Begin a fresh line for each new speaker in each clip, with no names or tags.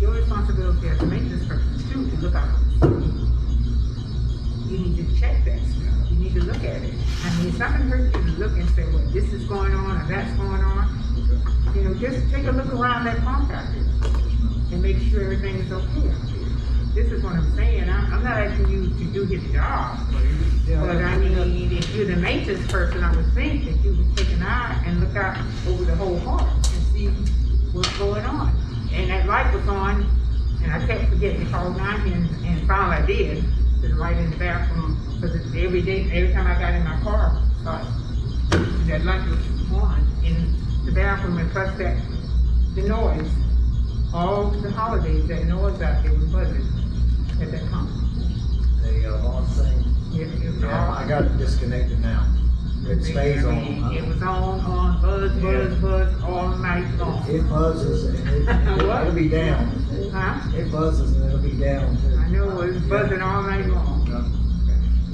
your responsibility as a maintenance person too, to look out. You need to check that stuff, you need to look at it. I mean, it's not gonna hurt you to look and say, well, this is going on, or that's going on. You know, just take a look around that farm factory and make sure everything is okay out there. This is what I'm saying, I'm, I'm not asking you to do his job, but I mean, if you're the maintenance person, I would think that you would take an eye and look out over the whole park and see what's going on. And that light was on, and I kept forgetting to call nine, and, and finally I did, to the light in the bathroom, because it's every day, every time I got in my car, uh, that light was on in the bathroom, and plus that, the noise, all the holidays, that noise out there was buzzing at that time.
The uh, lawn thing,
It- it was
yeah,
all-
I got it disconnected now. It stays
I mean,
on.
It was on, on, buzz, buzz, buzz, all night long.
It buzzes and it,
What?
it'll be down.
Huh?
It buzzes and it'll be down too.
I know it was buzzing all night long.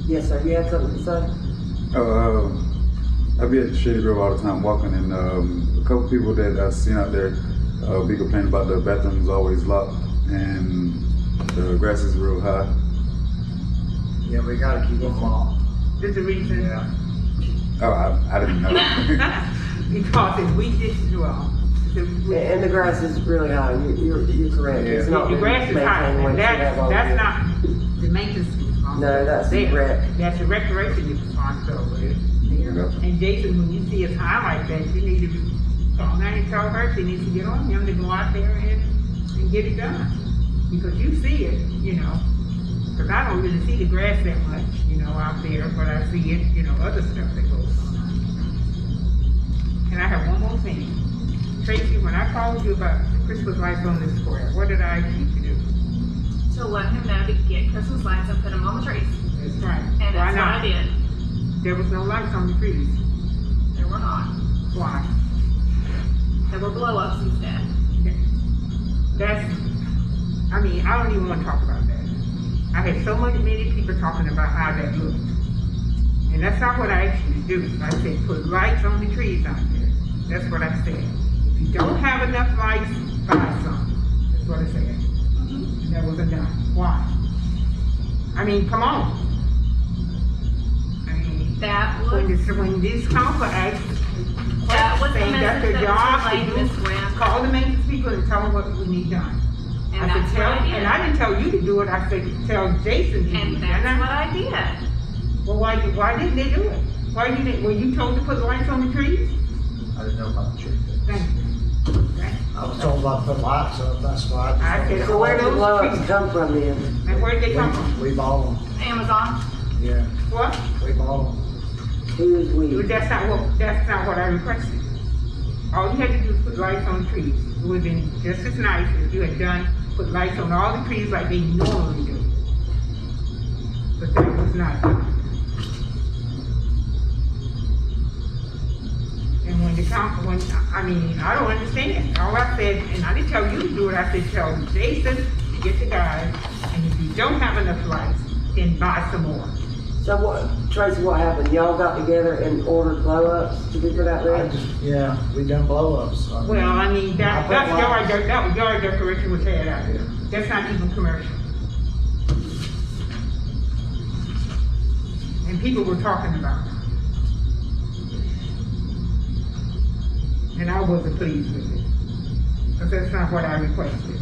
Yes, sir, you had something to say?
Uh, I be at the Shady Grove all the time walking, and um, a couple people that I seen out there uh, be complaining about the bathrooms always locked and the grass is real high.
Yeah, we gotta keep them on.
There's a reason.
Yeah.
Oh, I, I didn't know.
Because if we didn't do all,
And-
the,
And the grass is really high, You- you're, you're correct. It's
Yeah.
not
the
been
grass is high,
maintained like
and
it should have
that's,
all
that's
year.
not the maintenance
No,
responsibility.
that's the rec.
That's the recreation responsibility.
Yeah.
And Jason, when you see us high like that, you need to, be- call nine and tell her she needs to get on him to go out there and, and get it done. Because you see it, you know, cause I don't really see the grass that much, you know, out there, but I see it, you know, other stuff that goes on. And I have one more thing. Tracy, when I called you about the Christmas lights on the square, what did I need to do?
to let him know to get Christmas lights and put them on the trees.
That's right.
And
Why
that's what I
not?
did.
There was no lights on the trees.
There were not.
Why?
There were blow ups instead.
That's, I mean, I don't even wanna talk about that. I had so much, many people talking about how that looked. And that's not what I asked you to do. I said, put lights on the trees out there. That's what I said. If you don't have enough lights, buy some. That's what I said.
Mm-hmm.
And that wasn't done. Why? I mean, come on. I mean,
That
when
was
this, when this council asks,
that was the
saying that's
message
their
that
job
was
to
relayed, Miss
do,
Graham,
call the maintenance people and tell them what we need done.
and
I
that's
said,
what
tell,
I
and I
did.
didn't tell you to do it, I said, tell Jason to do it.
And
And
that's
I-
what I did.
Well, why, did- why didn't they do it? Why you didn't, were you told to put lights on the trees?
I didn't know about the tree.
Thank you. Right?
I was told about the lights up, that's why.
I
just-
said,
So where did the
Those
blowups
trees-
come from then?
And where did they come from?
We we bought them,
Amazon.
yeah,
What?
we bought them.
Who is we?
Well, That's not what, that's not what I requested. All you had to do was put lights on trees. It would've been just as nice if you had done, put lights on all the trees like they normally do. But that was not done. And when the council, when, I mean, I don't understand. All I said, and I didn't tell you to do it, I said, tell Jason to get the guys. And if you don't have enough lights, then buy some more.
So what, Tracy, what happened? Y'all got together and ordered blowups to be put out
I
there?
just, yeah, we done blow ups.
Well, I mean, that,
I
that's
put
yard,
lights.
dec- that was yard decoration was had out there. That's not even commercial. And people were talking about it. And I wasn't pleased with it. Cause that's not what I requested.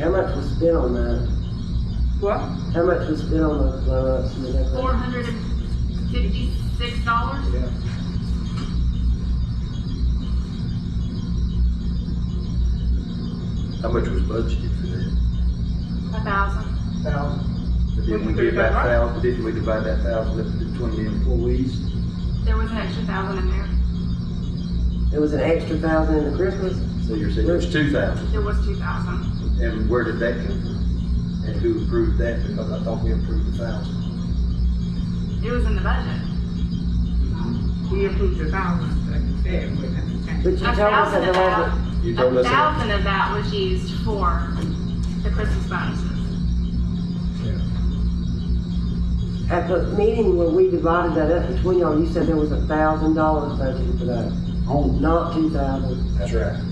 How much was spent on that?
What?
How much was spent on those blowups and the
Four
decorations?
hundred and fifty six dollars.
Yeah.
How much was budgeted for that?
A thousand.
Now,
But
Well,
Didn't
you
we
could've
give that
done right.
thousand, didn't we divide that thousand up to twenty employees?
There was an extra thousand in there.
There was an extra thousand in the Christmas?
So you're saying there's two thousand,
There was two thousand.
and where did that come from? And who approved that, because I thought we approved the thousand.
It was in the budget.
We approved the thousand, like you said, but that's the
But you
thing.
A
told us that
thousand
there
of that,
wasn't,
You told
a
us that.
thousand of that was used for the Christmas bonuses.
at the meeting where we divided that up between y'all, you said there was a thousand dollars budgeted for that,
home.
not two thousand.
That's right.